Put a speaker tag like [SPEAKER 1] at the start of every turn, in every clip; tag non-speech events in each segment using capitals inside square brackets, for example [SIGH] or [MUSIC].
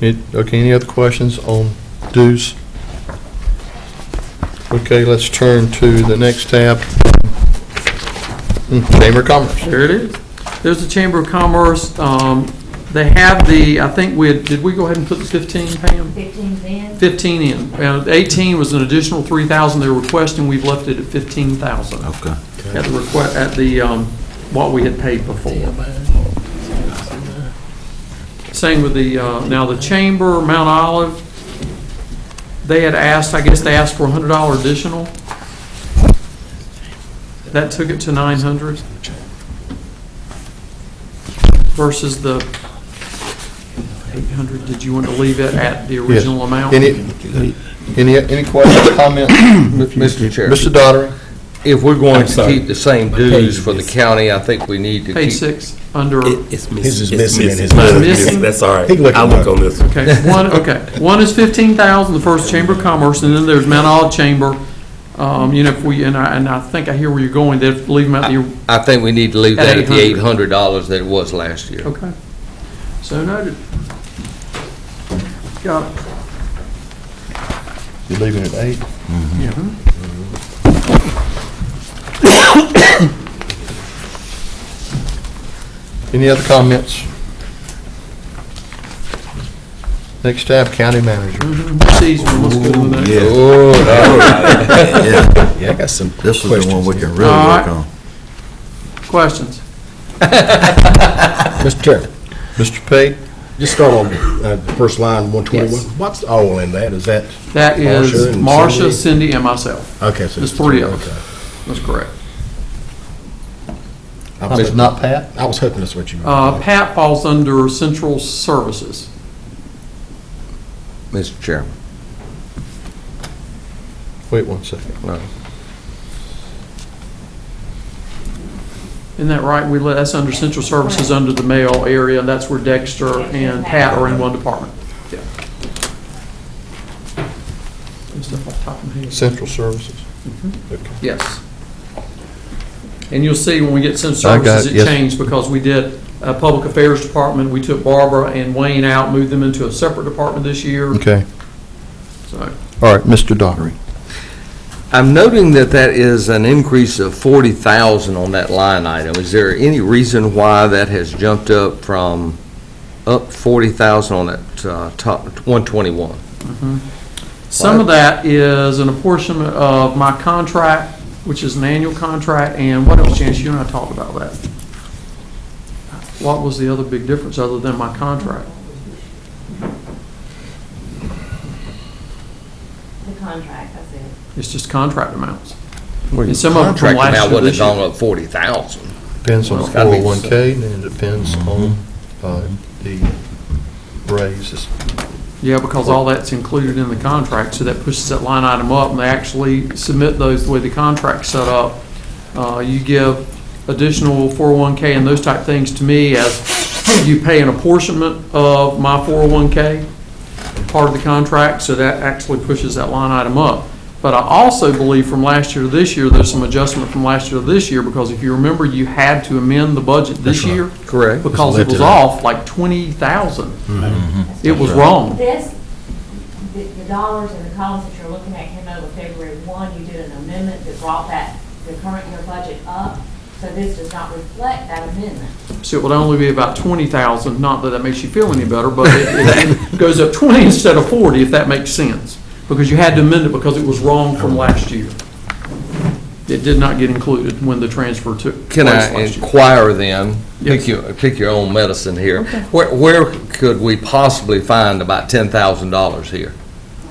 [SPEAKER 1] It- Okay, any other questions on dues? Okay, let's turn to the next tab. Hmm, Chamber of Commerce.
[SPEAKER 2] There it is. There's the Chamber of Commerce. Um, They have the, I think we, had- did we go ahead and put the 15, Pam?
[SPEAKER 3] 15 then?
[SPEAKER 2] 15 in. Uh, 18 was an additional 3,000 they were requesting. We've left it at 15,000
[SPEAKER 4] Okay.
[SPEAKER 2] at the request, at the, um, what we had paid before. Same with the, uh, now the Chamber, Mount Olive, they had asked, I guess they asked for a hundred dollar additional. That took it to nine hundred. Versus the eight hundred, did you want to leave it at the original amount?
[SPEAKER 1] Any, any, any questions, comments?
[SPEAKER 5] Mr. Chair,
[SPEAKER 1] Mr. Daughtry?
[SPEAKER 5] if we're going
[SPEAKER 6] I'm
[SPEAKER 5] to
[SPEAKER 6] sorry.
[SPEAKER 5] keep the same dues for the county, I think we need to keep.
[SPEAKER 2] Page six, under,
[SPEAKER 6] It's
[SPEAKER 4] His
[SPEAKER 6] missing.
[SPEAKER 4] is
[SPEAKER 6] It's
[SPEAKER 4] missing and his
[SPEAKER 2] Mine
[SPEAKER 4] is
[SPEAKER 2] missing?
[SPEAKER 6] That's all right.
[SPEAKER 4] He can look it
[SPEAKER 6] I'll look
[SPEAKER 4] up.
[SPEAKER 6] on this one.
[SPEAKER 2] okay, one, okay. One is fifteen thousand, the first Chamber of Commerce, and then there's Mount Olive Chamber. Um, you know, if we, and I, and I think I hear where you're going, they'd leave them out the
[SPEAKER 5] I think we need to leave
[SPEAKER 2] At
[SPEAKER 5] that at the eight
[SPEAKER 2] 800.
[SPEAKER 5] hundred dollars that it was last year.
[SPEAKER 2] Okay. So noted. Got it.
[SPEAKER 1] You're leaving it at eight? Any other comments? Next tab, County Manager.
[SPEAKER 2] Sees one, let's go to the next.
[SPEAKER 1] Oh,
[SPEAKER 4] Yeah, I got some
[SPEAKER 7] This is the one
[SPEAKER 4] questions.
[SPEAKER 7] we can really
[SPEAKER 2] All right.
[SPEAKER 7] work on.
[SPEAKER 2] Questions?
[SPEAKER 4] Mr. Chairman,
[SPEAKER 1] Mr. Pate?
[SPEAKER 4] just start on uh, the first line, 121. What's all in that? Is that,
[SPEAKER 2] That
[SPEAKER 4] Marcia
[SPEAKER 2] is
[SPEAKER 4] and
[SPEAKER 2] Marcia,
[SPEAKER 4] Cindy.
[SPEAKER 2] Cindy, and myself.
[SPEAKER 4] okay, so.
[SPEAKER 2] There's three of
[SPEAKER 4] okay.
[SPEAKER 2] us. That's correct.
[SPEAKER 4] I was
[SPEAKER 1] It's
[SPEAKER 4] hoping-
[SPEAKER 1] not Pat?
[SPEAKER 4] I was hoping that's what you were.
[SPEAKER 2] Uh, Pat falls under Central Services.
[SPEAKER 5] Mr. Chairman.
[SPEAKER 1] Wait one second.
[SPEAKER 5] No.
[SPEAKER 2] Isn't that right? We let, that's under Central Services, under the mail area, and that's where Dexter and Pat are in one department. Yeah. And stuff off the top of my head.
[SPEAKER 1] Central Services. Okay.
[SPEAKER 2] Yes. And you'll see when we get some
[SPEAKER 1] I got it,
[SPEAKER 2] services, it
[SPEAKER 1] yes.
[SPEAKER 2] changed because we did a Public Affairs Department, we took Barbara and Wayne out, moved them into a separate department this year,
[SPEAKER 1] Okay,
[SPEAKER 2] so.
[SPEAKER 1] all right, Mr. Daughtry.
[SPEAKER 5] I'm noting that that is an increase of forty thousand on that line item. Is there any reason why that has jumped up from up forty thousand on that uh, top one twenty-one?
[SPEAKER 2] Some of that is an apportionment of my contract, which is an annual contract, and what else, Janice, you and I talked about that. What was the other big difference other than my contract?
[SPEAKER 3] The contract, that's it.
[SPEAKER 2] It's just contract amounts. And some of it from
[SPEAKER 5] Contract
[SPEAKER 2] last
[SPEAKER 5] amount
[SPEAKER 2] year,
[SPEAKER 5] wouldn't
[SPEAKER 2] this
[SPEAKER 5] have
[SPEAKER 2] year.
[SPEAKER 5] gone up forty thousand.
[SPEAKER 1] Depends on the
[SPEAKER 5] It's gotta be- Mm-hmm.
[SPEAKER 1] 401K, and it depends on uh, the raises.
[SPEAKER 2] Yeah, because all that's included in the contract, so that pushes that line item up, and they actually submit those the way the contract's set up. Uh, you give additional 401K and those type things to me as you pay an apportionment of my 401K, part of the contract, so that actually pushes that line item up. But I also believe from last year to this year, there's some adjustment from last year to this year, because if you remember, you had to amend the budget this year.
[SPEAKER 5] Correct.
[SPEAKER 2] Because it was off like 20,000. It was wrong.
[SPEAKER 3] This, the the dollars and the columns that you're looking at came over February 1. You did an amendment that brought that, the current year budget up, so this does not reflect that amendment.
[SPEAKER 2] So it would only be about twenty thousand, not that that makes you feel any better, but
[SPEAKER 5] [LAUGHS]
[SPEAKER 2] it, it goes up twenty instead of forty, if that makes sense. Because you had to amend it because it was wrong from last year. It did not get included when the transfer took place
[SPEAKER 5] Can I
[SPEAKER 2] last year.
[SPEAKER 5] inquire then,
[SPEAKER 2] Yes.
[SPEAKER 5] pick your, pick your own medicine here, where, where could we possibly find about ten thousand dollars here?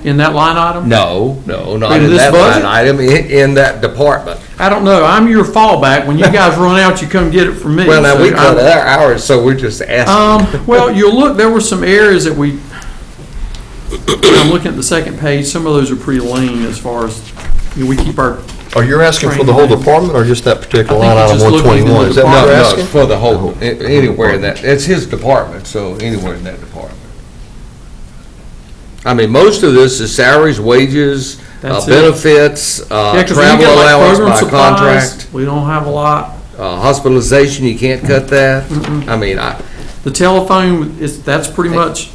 [SPEAKER 2] In that line item?
[SPEAKER 5] No, no, not
[SPEAKER 2] In
[SPEAKER 5] in
[SPEAKER 2] this
[SPEAKER 5] that
[SPEAKER 2] budget?
[SPEAKER 5] line item, in, in that department.
[SPEAKER 2] I don't know, I'm your fallback, when you guys run out, you come get it from me.
[SPEAKER 5] Well, now, we
[SPEAKER 2] So
[SPEAKER 5] cut
[SPEAKER 2] I'm-
[SPEAKER 5] our hours, so we're just asking.
[SPEAKER 2] Um, well, you'll look, there were some areas that we, I'm looking at the second page, some of those are pretty lean as far as, you know, we keep our
[SPEAKER 1] Are you asking for the whole department, or just that particular line
[SPEAKER 2] I think
[SPEAKER 1] item
[SPEAKER 2] it's just looking into
[SPEAKER 1] 121? Is that
[SPEAKER 2] the
[SPEAKER 1] what
[SPEAKER 5] No,
[SPEAKER 1] you're
[SPEAKER 2] department.
[SPEAKER 5] no,
[SPEAKER 1] asking?
[SPEAKER 5] for the whole, a- anywhere in that, it's his department, so anywhere in that department. I mean, most of this is salaries, wages, uh,
[SPEAKER 2] That's it.
[SPEAKER 5] benefits,
[SPEAKER 2] Yeah,
[SPEAKER 5] uh,
[SPEAKER 2] 'cause when you
[SPEAKER 5] travel
[SPEAKER 2] get like
[SPEAKER 5] allowance
[SPEAKER 2] program
[SPEAKER 5] by contract,
[SPEAKER 2] supplies, We don't have a lot.
[SPEAKER 5] uh, hospitalization, you can't cut that. I mean, I,
[SPEAKER 2] The telephone is, that's pretty much